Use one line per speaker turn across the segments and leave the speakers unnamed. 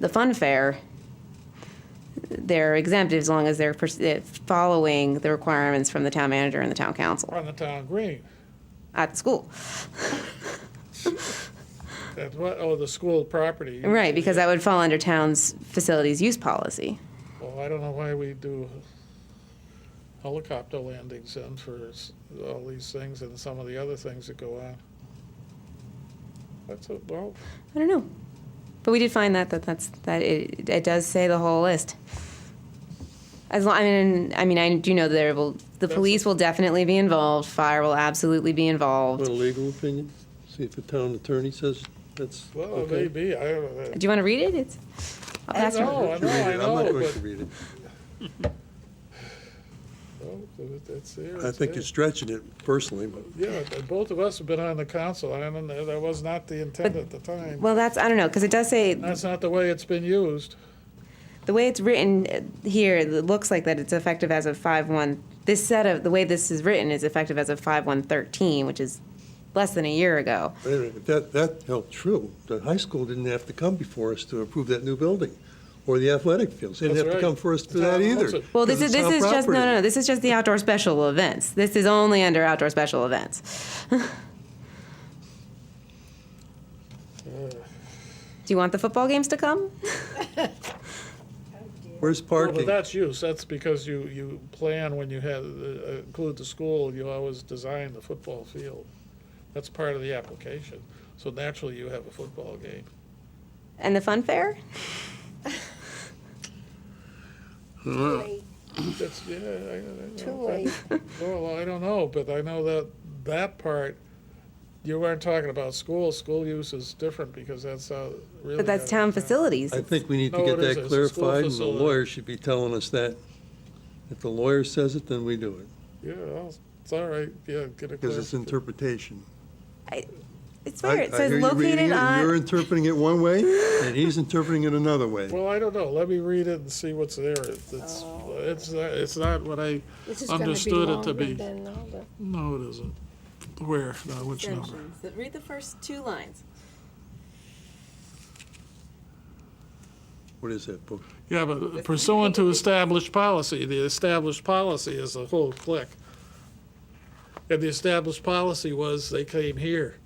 the fun fair, they're exempt as long as they're pers- eh, following the requirements from the town manager and the town council
on the town green.
at the school.
That's what, oh, the school property.
Right, because that would fall under town's facilities use policy.
Well, I don't know why we do helicopter landings in for s- all these things and some of the other things that go on. That's, a- well,
I don't know. But we did find that, that that's, that it, it does say the whole list. As long, I mean, I mean, I do know there will, the
That's-
police will definitely be involved, fire will absolutely be
Want
involved.
a legal opinion? See if the town attorney says that's
well,
okay.
maybe, I don't know.
Do you want to read it? It's, I'll
I
pass it.
know, I
Read
know,
it.
I
I'm not
know,
going to
but,
read it.
oh, it- it's there.
I think
there.
you're stretching it personally, but
Yeah, but both of us have been on the council, I don't know, that was not the intent at the time.
Well, that's, I don't know, because it does say,
That's not the way it's been used.
the way it's written uh, here, it looks like that it's effective as of five one. This set of, the way this is written is effective as of five one thirteen, which is less than a year ago.
wait a minute, if that, that held true. The high school didn't have to come before us to approve that new building, or the athletic fields. They
That's
didn't have to
right.
come for us for
The
that
town owns
either.
it.
Well, this
'cause
is
it's
this
town
is just no, no,
property.
no. This is just the outdoor special events. This is only under outdoor special events. Do you want the football games to come?
Where's
Well, but
parking?
that's use, that's because you, you plan when you have, uh, include the school, you always design the football field. That's part of the application, so naturally you have a football game.
And the fun fair?
That's, yeah, I, I know.
Too late.
Well, I don't know, but I know that, that part, you weren't talking about school, school use is different because that's how really.
But that's
how-
town facilities.
I think we need to
No,
get
it
that
isn't. It's a school
clarified, and the
facility.
lawyer should be telling us that. If the lawyer says it, then we do it,
Yeah, well, it's all right, yeah, get a.
because it's interpretation.
It's
I-
where it
I
says
hear you
located
reading it, and You're
on.
interpreting it one way, and he's interpreting it another way.
Well, I don't know, let me read it and see what's there, it's, it's,
Oh.
it's not- it's not what I,
This is gonna be
Understood it to
longer
be.
than all the-
no, it isn't. Where, no, which number?
Read the first two lines.
What is that book?
Yeah, but pursuant to established policy, the established policy is a whole click. And the established policy was they came here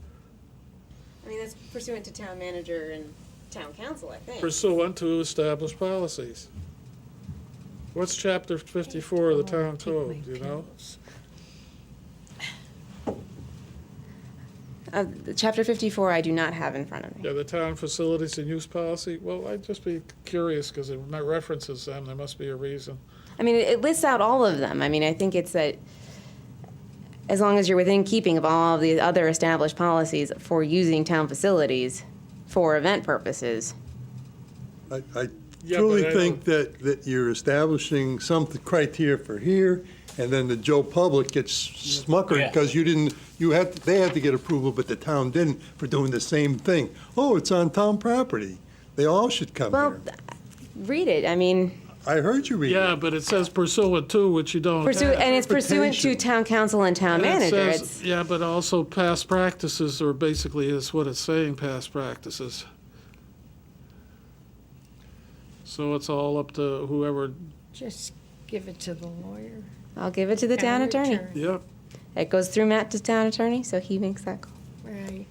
I mean, that's pursuant to town manager and town council, I think.
pursuant to established policies. What's chapter fifty-four of the town code, you know?
Uh, chapter fifty-four, I do not have in front of me.
Yeah, the town facilities and use policy, well, I'd just be curious, because it references them, there must be a reason.
I mean, it- it lists out all of them. I mean, I think it's that as long as you're within keeping of all of the other established policies for using town facilities for event purposes.
I, I
Yeah,
truly
but I
think that, that you're establishing some criteria for here, and then the Joe Public gets smuckered because you didn't, you had, they had to get approval, but the town didn't for doing the same thing. Oh, it's on town property. They all should come
Well,
here.
read it. I mean,
I heard you read
Yeah,
it.
but it says pursuant to, which you don't
pursue,
have.
and it's pursuant to
Interpretation.
town council and town
And it
manager.
says-
It's,
Yeah, but also past practices are basically is what it's saying, past practices. So it's all up to whoever,
Just give it to the lawyer.
I'll give it to the town
Town
attorney.
attorney.
yeah.
It goes through Matt to town attorney, so he makes that call.
Right.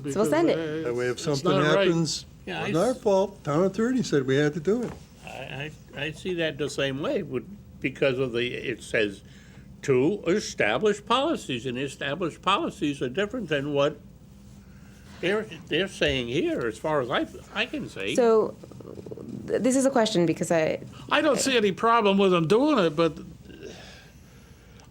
because,
send it.
hey,
That way if
it's
something
not right.
happens,
Yeah, I
it's our
s-
fault. Town attorney said we had to do it.
I, I, I see that the same way, would, because of the, it says, to establish policies, and established policies are different than what they're, they're saying here, as far as I, I can see.
So th- this is a question because I,
I don't see any problem with them doing it, but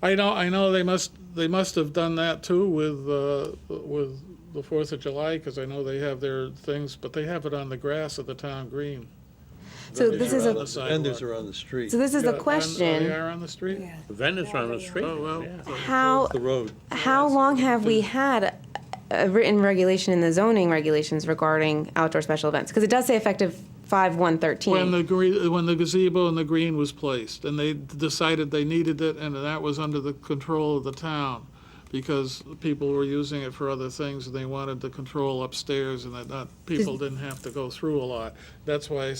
I know, I know they must, they must have done that too with, uh, with the Fourth of July, because I know they have their things, but they have it on the grass of the town green.
so this is
Vendors are on
a,
the
Vendors
sidewalk.
are on the street,
so this is
Yeah,
the
on- oh, They
question.
are on the street?
Vendors on the street.
Oh, well.
yeah.
How,
the road.
How long have we had a- a written regulation in the zoning regulations regarding outdoor special events? Because it does say effective five one
When
thirteen.
the gre when the gazebo and the green was placed, and they decided they needed it, and that was under the control of the town. because people were using it for other things and they wanted the control upstairs and that not, people didn't have to go through a lot. That's why I